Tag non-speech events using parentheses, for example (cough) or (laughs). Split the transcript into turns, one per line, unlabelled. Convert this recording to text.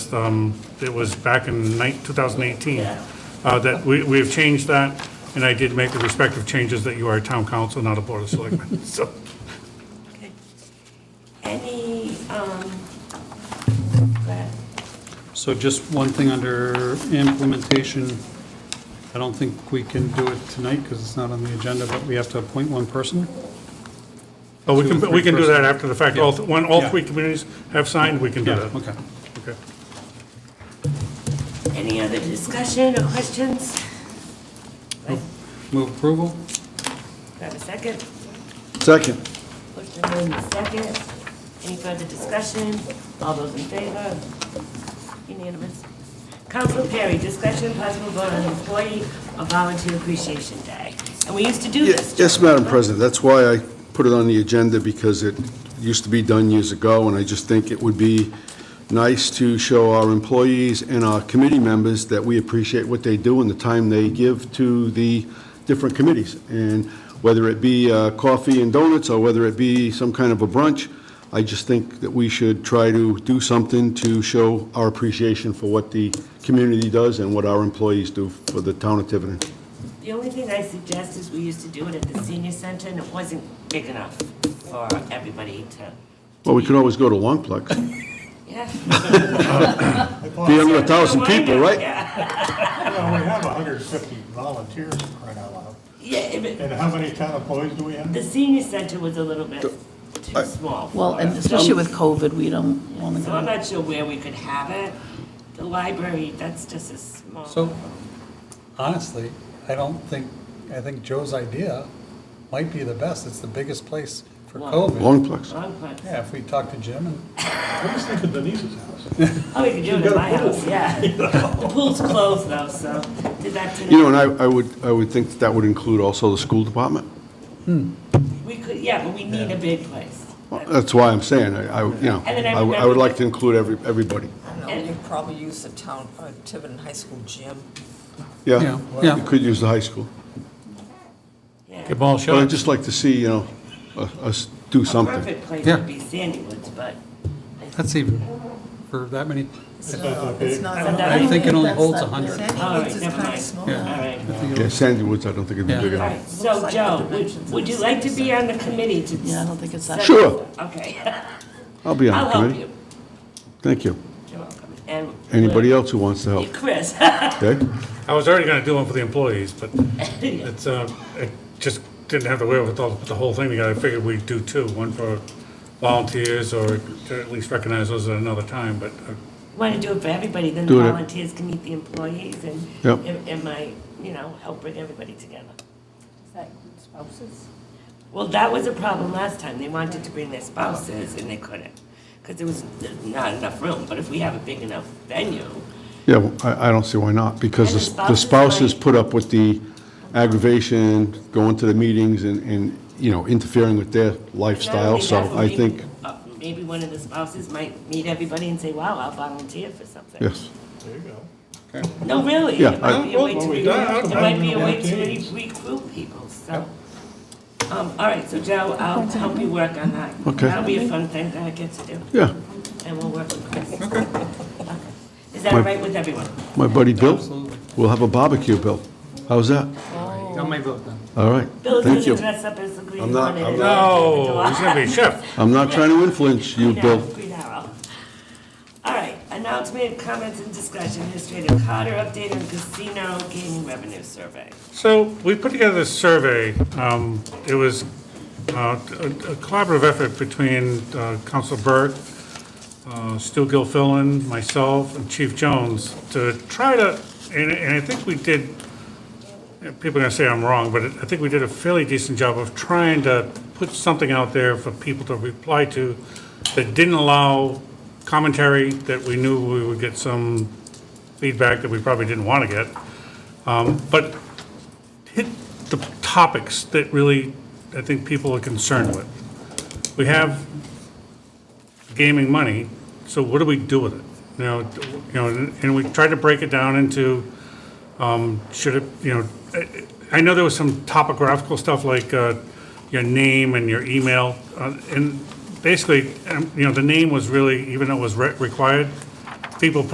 list, um, it was back in nine- 2018, uh, that we we have changed that, and I did make the respective changes that you are a town council, not a board of selectmen. So,
Okay. Any, um, go ahead.
So just one thing under implementation, I don't think we can do it tonight because it's not on the agenda, but we have to appoint one person.
oh, we can, we can do that after the fact. All, th- when all
Yeah.
three communities have signed, we can do that.
Okay.
Okay.
any other discussion or questions? Right,
Move approval?
Do I have a second?
Second.
Motion made in second. Any further discussion? All those in favor? Unanimous. Council Perry, discussion possible vote on employee or volunteer appreciation day. And we used to do this.
Yes, Madam President, that's why I put it on the agenda, because it used to be done years ago, and I just think it would be nice to show our employees and our committee members that we appreciate what they do and the time they give to the different committees. And whether it be uh, coffee and donuts, or whether it be some kind of a brunch, I just think that we should try to do something to show our appreciation for what the community does and what our employees do for the town of Tiverton.
The only thing I suggest is we used to do it at the senior center, and it wasn't big enough for everybody to,
Well, we could always go to Long Plex.
yeah.
Be under a thousand people, right?
Yeah,
Well, we have hundred and fifty volunteers right out loud.
yeah, but
And how many town employees do we have?
the senior center was a little bit too small. for
Well, and
us.
especially with COVID, we don't want to
So I'm
go.
not sure where we could have it. The library, that's just a small.
So honestly, I don't think, I think Joe's idea might be the best. It's the biggest place for COVID.
Long Plex.
Long place.
Yeah, if we talk to Jim and,
I was thinking Denise's house.
Oh, we could do it at my house, yeah. The pool's closed though, so did that tonight.
You know, and I, I would, I would think that that would include also the school department.
We could, yeah, but we need a big place.
Well, That's why I'm saying, I, I, you know,
And then I
I would- I would like to include every, everybody.
No, you probably use the town, uh, Tiverton High School gym.
Yeah,
Yeah, yeah.
you could use the high school.
Yeah.
Get ball
But I'd
shot.
just like to see, you know, us- us do something.
Perfect place
Yeah.
would be Sandy Woods, but
that's even, for that many,
It's not that big.
I think it only holds 100.
All
Sandy
right,
Woods is
never
kind of
mind.
small.
all right.
Yeah, Sandy Woods, I don't think it'd be
Yeah.
big
All
enough.
right, so Joe, would, would you like to be on the committee to?
Yeah, I don't think it's that.
Sure,
Okay,
I'll be on
(laughs) I'll
the
help
committee.
you.
Thank you.
You're welcome. And.
Anybody else who wants to help,
Chris. (laughs)
okay?
I was already gonna do one for the employees, but it's, uh, I just didn't have the wherewithal to put the whole thing together. I figured we'd do two, one for volunteers or to at least recognize those at another time, but uh,
Want to do it for everybody, then the
Do it.
volunteers can meet the employees and,
Yep.
and and my, you know, help bring everybody together.
that include spouses?
Well, that was a problem last time. They wanted to bring their spouses and they couldn't because there was not enough room. But if we have a big enough venue,
Yeah, well, I, I don't see why not, because
And
the
the
s- the
spouses
spouses
might-
put up with the aggravation, going to the meetings and, and, you know, interfering with their
not only
lifestyle,
that,
so
but
I
maybe-
think,
uh, Maybe one of the spouses might meet everybody and say, wow, I'll volunteer for something.
yes.
There you go.
No, really?
Yeah,
It
I-
might be a way
Well,
to,
we
re-
done,
it
I-
might be a
I-
way to re- recruit people, so. Um, all right, so Joe, I'll help you work on that.
Okay.
That'll be a fun thing that I get to do,
Yeah,
and we'll work with Chris. Okay. Is that all right with everyone?
my buddy Bill,
Absolutely.
we'll have a barbecue, Bill. How's that?
got my vote then.
All right,
Bill's
thank
gonna
you.
dress up as the Green
I'm not-
Hornet.
I'm
and
not.
open the
no,
door.
oh, he's gonna be a chef.
I'm not trying to influence you,
Green Arrow,
Bill.
Green Arrow. All right, announcement, comments, and discussion, Administrator Carter, update on casino gaming revenue survey.
So we put together this survey. Um, It was uh, a a collaborative effort between uh, Council Burke, uh, Stu Gilfillan, myself, and Chief Jones to try to, and and I think we did, people are going to say I'm wrong, but I think we did a fairly decent job of trying to put something out there for people to reply to that didn't allow commentary, that we knew we would get some feedback that we probably didn't want to get. Um, But hit the topics that really, I think people are concerned with. We have gaming money, so what do we do with it? Now, you know, and we tried to break it down into, um, should it, you know, I- I know there was some topographical stuff like uh, your name and your email, uh, and basically, um, you know, the name was really, even though it was re- required, people put